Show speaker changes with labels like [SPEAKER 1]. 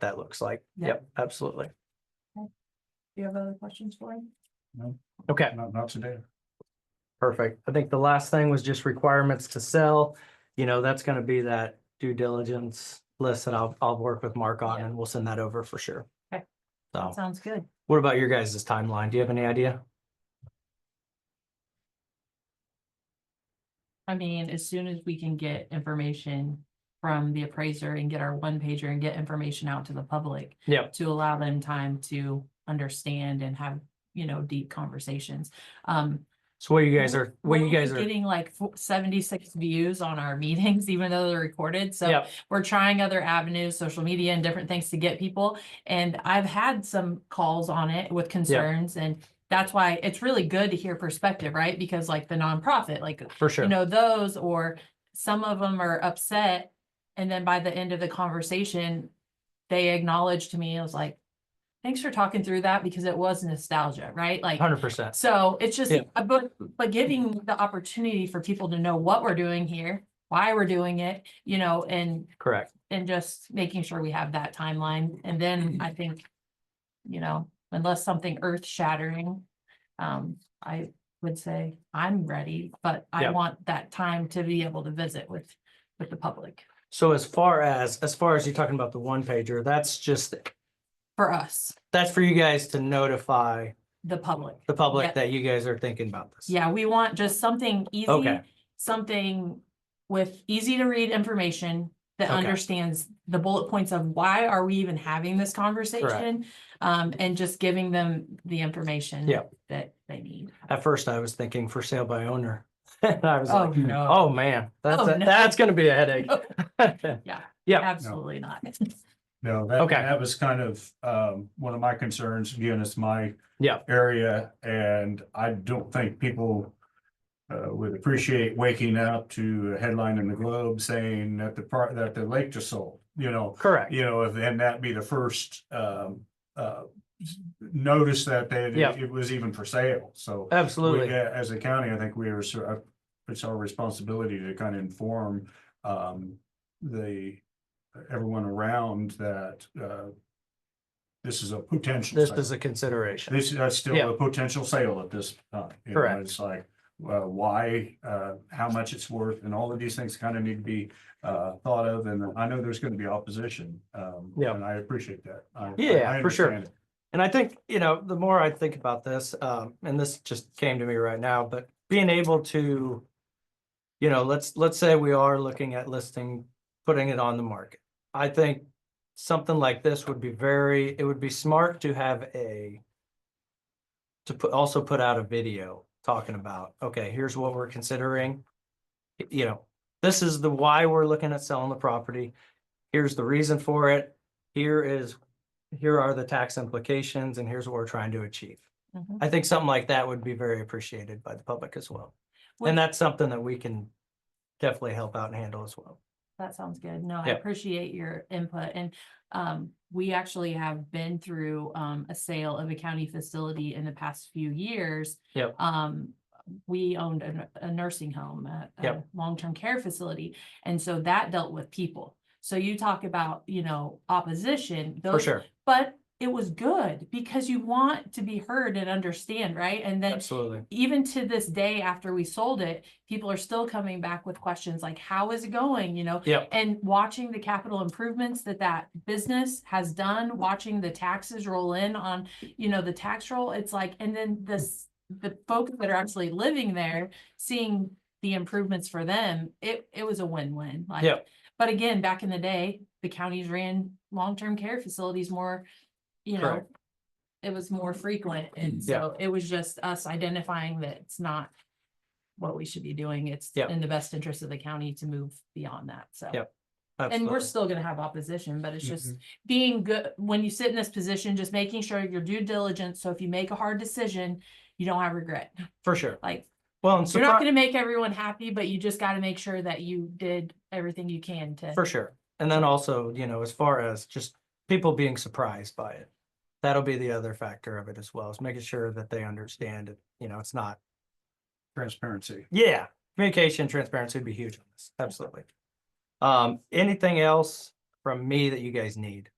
[SPEAKER 1] that looks like.
[SPEAKER 2] Yeah.
[SPEAKER 1] Yep, absolutely.
[SPEAKER 2] Do you have other questions for him?
[SPEAKER 1] Okay,
[SPEAKER 3] Not, not today.
[SPEAKER 1] perfect. I think the last thing was just requirements to sell. You know, that's gonna be that due diligence list that I'll, I'll work with Mark on
[SPEAKER 2] Yeah.
[SPEAKER 1] and we'll send that over for sure.
[SPEAKER 2] Okay.
[SPEAKER 1] So
[SPEAKER 2] That sounds good.
[SPEAKER 1] what about your guys' timeline? Do you have any idea?
[SPEAKER 2] I mean, as soon as we can get information from the appraiser and get our one pager and get information out to the public.
[SPEAKER 1] Yep.
[SPEAKER 2] To allow them time to understand and have, you know, deep conversations. Um.
[SPEAKER 1] So what you guys are, what you
[SPEAKER 2] we're
[SPEAKER 1] guys are,
[SPEAKER 2] Getting like fo- seventy-six views on our meetings, even though they're recorded, so.
[SPEAKER 1] yep,
[SPEAKER 2] we're trying other avenues, social media and different things to get people. And I've had some calls on it with concerns and that's why it's really good to hear perspective, right? Because like the nonprofit, like,
[SPEAKER 1] for sure.
[SPEAKER 2] you know, those or some of them are upset. And then by the end of the conversation, they acknowledged to me, I was like, thanks for talking through that because it was nostalgia, right? Like,
[SPEAKER 1] Hundred percent.
[SPEAKER 2] so it's just,
[SPEAKER 1] Yeah.
[SPEAKER 2] uh, but, but giving the opportunity for people to know what we're doing here, why we're doing it, you know, and
[SPEAKER 1] Correct.
[SPEAKER 2] and just making sure we have that timeline. And then I think, you know, unless something earth shattering, um, I would say I'm ready, but I
[SPEAKER 1] Yeah.
[SPEAKER 2] want that time to be able to visit with, with the public
[SPEAKER 1] So as far as, as far as you're talking about the one pager, that's just,
[SPEAKER 2] for us,
[SPEAKER 1] that's for you guys to notify
[SPEAKER 2] the public.
[SPEAKER 1] the
[SPEAKER 2] Yeah.
[SPEAKER 1] public that you guys are thinking about this.
[SPEAKER 2] Yeah, we want just something easy,
[SPEAKER 1] Okay.
[SPEAKER 2] something with easy to read information that
[SPEAKER 1] Okay.
[SPEAKER 2] understands the bullet points of why are we even having this conversation? Um, and just giving them the information
[SPEAKER 1] Yeah.
[SPEAKER 2] that they need.
[SPEAKER 1] At first I was thinking for sale by owner. And I was
[SPEAKER 2] Oh,
[SPEAKER 1] like,
[SPEAKER 2] no,
[SPEAKER 1] oh man, that's,
[SPEAKER 2] Oh,
[SPEAKER 1] a-
[SPEAKER 2] no.
[SPEAKER 1] that's gonna be a headache.
[SPEAKER 2] Oh, absolutely not.
[SPEAKER 3] No, that,
[SPEAKER 1] Okay.
[SPEAKER 3] that was kind of, um, one of my concerns, again, it's my.
[SPEAKER 1] Yeah.
[SPEAKER 3] Area, and I don't think people. Uh, would appreciate waking up to a headline in the Globe saying that the part, that the lake just sold, you know.
[SPEAKER 1] Correct.
[SPEAKER 3] You know, and that be the first, um, uh, notice that they,
[SPEAKER 1] Yeah.
[SPEAKER 3] it was even for sale, so. We,
[SPEAKER 1] Absolutely.
[SPEAKER 3] uh, As a county, I think we are, sor- uh, it's our responsibility to kind of inform um the, everyone around that uh. This is a potential.
[SPEAKER 1] This
[SPEAKER 3] sale.
[SPEAKER 1] is a consideration.
[SPEAKER 3] This, that's still
[SPEAKER 1] Yeah.
[SPEAKER 3] a potential sale at this time. you know,
[SPEAKER 1] Correct.
[SPEAKER 3] It's like, well, why, uh, how much it's worth and all of these things kind of need to be uh thought of and I know there's going to be opposition. Um,
[SPEAKER 1] Yeah.
[SPEAKER 3] and I appreciate that. I- I-
[SPEAKER 1] Yeah,
[SPEAKER 3] I
[SPEAKER 1] for sure.
[SPEAKER 3] understand it.
[SPEAKER 1] And I think, you know, the more I think about this, um, and this just came to me right now, but being able to, you know, let's, let's say we are looking at listing, putting it on the market. I think something like this would be very, it would be smart to have a to put, also put out a video talking about, okay, here's what we're considering. Y- You know, this is the why we're looking at selling the property. Here's the reason for it. Here is, here are the tax implications and here's what we're trying to achieve.
[SPEAKER 2] Mhm.
[SPEAKER 1] I think something like that would be very appreciated by the public as well.
[SPEAKER 2] Well-
[SPEAKER 1] And that's something that we can definitely help out and handle as well.
[SPEAKER 2] That sounds good. No, I
[SPEAKER 1] Yeah.
[SPEAKER 2] appreciate your input and um, we actually have been through um, a sale of a county facility in the past few years.
[SPEAKER 1] Yep.
[SPEAKER 2] Um, we owned a, a nursing home, a, a
[SPEAKER 1] Yep.
[SPEAKER 2] long-term care facility, and so that dealt with people. So you talk about, you know, opposition,
[SPEAKER 1] For
[SPEAKER 2] those,
[SPEAKER 1] sure.
[SPEAKER 2] but it was good because you want to be heard and understand, right? And then
[SPEAKER 1] Absolutely.
[SPEAKER 2] even to this day after we sold it, people are still coming back with questions like, how is it going? You know?
[SPEAKER 1] Yep.
[SPEAKER 2] And watching the capital improvements that that business has done, watching the taxes roll in on, you know, the tax roll, it's like, and then this, the folks that are actually living there, seeing the improvements for them, it, it was a win-win. Like,
[SPEAKER 1] Yep.
[SPEAKER 2] But again, back in the day, the counties ran long-term care facilities more, you know,
[SPEAKER 1] Correct. Mm,
[SPEAKER 2] it was more frequent. And
[SPEAKER 1] Yeah.
[SPEAKER 2] so it was just us identifying that it's not what we should be doing. It's
[SPEAKER 1] Yeah.
[SPEAKER 2] in the best interest of the county to move beyond that. So.
[SPEAKER 1] Yeah.
[SPEAKER 2] And we're
[SPEAKER 1] Absolutely.
[SPEAKER 2] still gonna have opposition, but it's just being good, when you sit in this position, just making sure your due diligence, so if you make a hard decision, you don't have regret.
[SPEAKER 1] For sure.
[SPEAKER 2] Like,
[SPEAKER 1] Well, and
[SPEAKER 2] you're not
[SPEAKER 1] surprise,
[SPEAKER 2] gonna make everyone happy, but you just gotta make sure that you did everything you can to.
[SPEAKER 1] for sure. And then also, you know, as far as just people being surprised by it. That'll be the other factor of it as well, is making sure that they understand it. You know, it's not,
[SPEAKER 3] Transparency.
[SPEAKER 1] yeah, communication, transparency would be huge on this. Absolutely. Um, anything else from me that you guys need?